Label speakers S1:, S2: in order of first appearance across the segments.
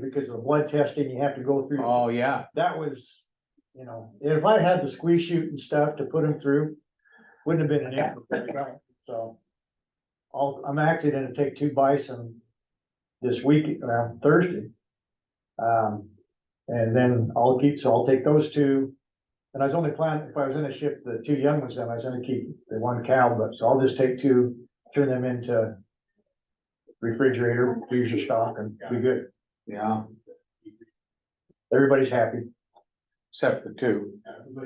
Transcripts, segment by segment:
S1: because of the blood testing you have to go through.
S2: Oh, yeah,
S1: That was, you know, if I had the squeeze chute and stuff to put him through, wouldn't have been an issue. So. I'll, I'm actually gonna take two bison this week, around Thursday. Um, and then I'll keep, so I'll take those two. And I was only planning, if I was gonna ship the two young ones, then I was gonna keep the one cow, but so I'll just take two, turn them into refrigerator, freezer stock and be good.
S2: yeah,
S1: Everybody's happy.
S2: except for the two.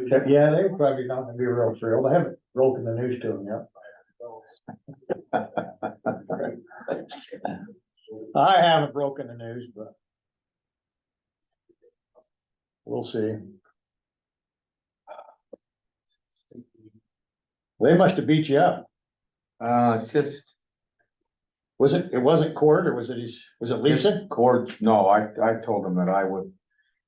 S1: Except, yeah, they were probably not gonna be real thrilled. I haven't broken the news to them yet. I haven't broken the news, but. We'll see. They must have beat you up.
S2: Uh, it's just.
S1: Was it, it wasn't Cord or was it his, was it Lisa?
S2: Cord, no, I, I told him that I would.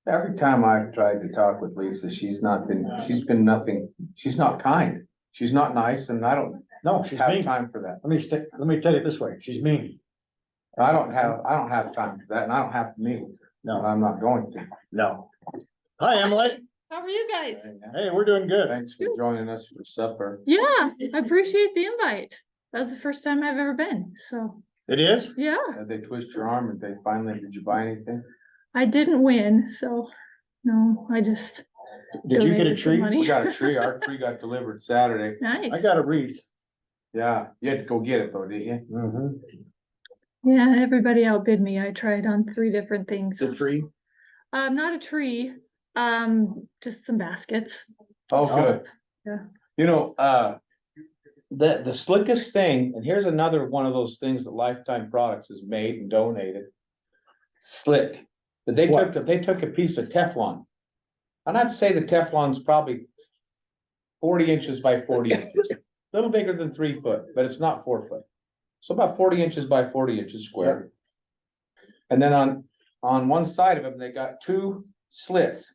S2: Every time I've tried to talk with Lisa, she's not been, she's been nothing, she's not kind. She's not nice and I don't
S1: No, she's
S2: have
S1: mean.
S2: time for that.
S1: Let me, sta- let me tell you it this way. She's mean.
S2: I don't have, I don't have time for that and I don't have to meet with her, and
S1: No,
S2: I'm not going to.
S1: no. Hi, Emily.
S3: How are you guys?
S1: Hey, we're doing good.
S2: Thanks for joining us for supper.
S3: Yeah, I appreciate the invite. That was the first time I've ever been, so,
S1: It is?
S3: yeah,
S2: Did Uh, they twist your arm? Did they finally, did you buy anything?
S3: I didn't win, so, no, I just.
S1: Did you get a
S3: donated some
S1: treat?
S3: money.
S2: We got a tree, our tree got delivered Saturday.
S1: I
S3: Nice,
S1: got a wreath.
S2: Yeah, you had to go get it though, didn't you?
S1: Mhm.
S3: yeah, everybody outbid me, I tried on three different things,
S2: tree?
S3: um, not a tree, um, just some baskets.
S2: Oh,
S3: So,
S2: good.
S3: yeah.
S2: You know, uh, the, the slickest thing, and here's another one of those things that Lifetime Products has made and donated. Slick, But they
S1: What?
S2: took, they took a piece of Teflon. And I'd say the Teflon's probably forty inches by forty inches, a little bigger than three foot, but it's not four foot. So about forty inches by forty inches square. And then on, on one side of them, they got two slits.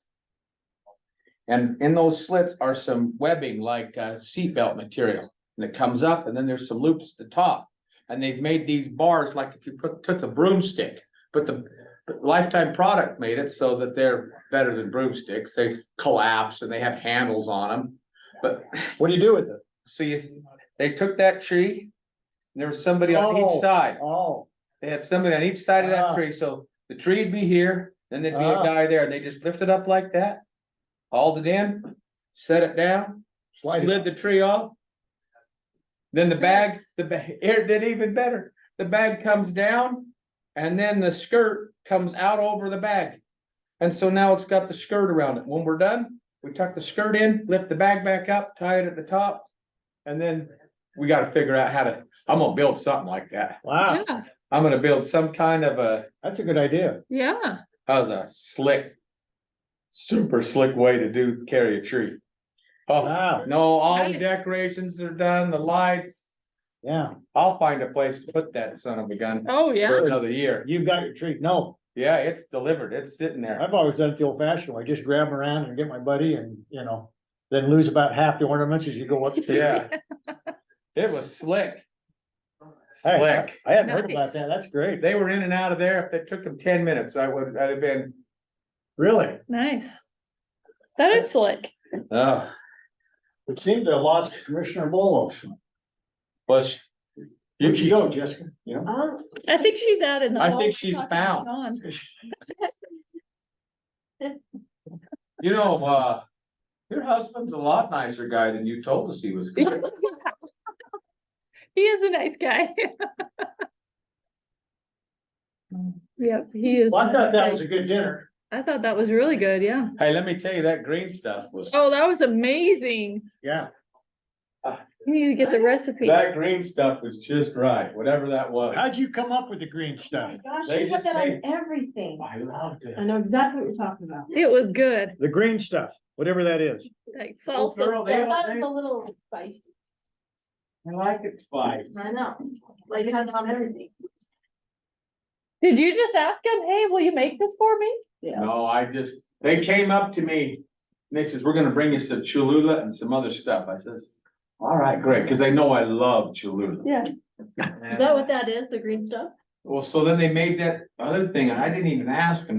S2: And in those slits are some webbing like uh, seatbelt material, and it comes up and then there's some loops at the top. And they've made these bars like if you put, took a broomstick, but the but Lifetime product made it so that they're better than broomsticks. They collapse and they have handles on them. But
S1: What do you do with it?
S2: see, they took that tree, and there was somebody on
S1: Oh.
S2: each side.
S1: Oh,
S2: They had somebody on each side of
S1: Ah.
S2: that tree, so the tree would be here, then there'd be a
S1: Ah.
S2: guy there, and they just lift it up like that. Hauled it in, set it down,
S1: slide it.
S2: lid the tree off. Then the bag,
S3: Nice.
S2: the bag, it did even better, the bag comes down, and then the skirt comes out over the bag. And so now it's got the skirt around it, when we're done, we tuck the skirt in, lift the bag back up, tie it at the top. And then we gotta figure out how to, I'm gonna build something like that.
S1: Wow,
S3: Yeah,
S2: I'm gonna build some kind of a,
S1: that's a good idea.
S3: yeah,
S2: how's a slick. Super slick way to do, carry a tree. Oh,
S1: Wow,
S2: no, all the
S3: Nice.
S2: decorations are done, the lights,
S1: yeah,
S2: I'll find a place to put that son of a gun
S3: oh, yeah,
S2: for another year.
S1: you've got your treat. No,
S2: Yeah, it's delivered, it's sitting there.
S1: I've always done it the old fashioned way. Just grab 'em around and get my buddy and, you know, then lose about half the ornaments as you go up.
S2: Yeah. It was slick.
S1: Hey,
S2: Slick.
S1: I hadn't heard about
S3: Nice.
S1: that. That's great.
S2: They were in and out of there. If it took them ten minutes, I would, I'd have been,
S1: Really?
S3: nice. That is slick.
S2: oh,
S1: It seemed to have lost Commissioner Bolos.
S2: bless.
S1: Where'd she go, Jessica? You know?
S3: I think she's out in the.
S2: I
S3: hall.
S2: think she's
S3: Talking to
S2: found.
S3: John.
S2: You know, uh, your husband's a lot nicer guy than you told us he was. gonna be.
S3: He is a nice guy. Yep, he is.
S1: Well, I
S3: a
S1: thought
S3: nice
S1: that
S3: guy.
S1: was a good dinner.
S3: I thought that was really good, yeah.
S2: Hey, let me tell you, that green stuff was,
S3: Oh, that was amazing.
S1: Yeah.
S3: You need to get the recipe.
S2: that green stuff was just right, whatever that was.
S1: How'd you come up with the green
S4: Oh my
S1: stuff?
S4: Gosh,
S2: They
S4: you put
S2: just
S4: that on
S2: made-
S4: everything.
S2: I loved it.
S4: I know exactly what you're talking about.
S3: It was good,
S1: The green stuff, whatever that is.
S3: like
S1: Oh,
S3: salsa.
S1: girl, they
S4: I
S1: all-
S4: thought it
S1: they-
S4: was a little spicy.
S2: I like it spice.
S4: I know, like it has it on everything.
S3: Did you just ask him, hey, will you make this for me?
S4: Yeah.
S2: No, I just, they came up to me, and they says, we're gonna bring you some Cholula and some other stuff. I says, all right, great, because they know I love Cholula.
S4: Yeah, is that what that is, the green stuff?
S2: Well, so then they made that other thing, and I didn't even ask them.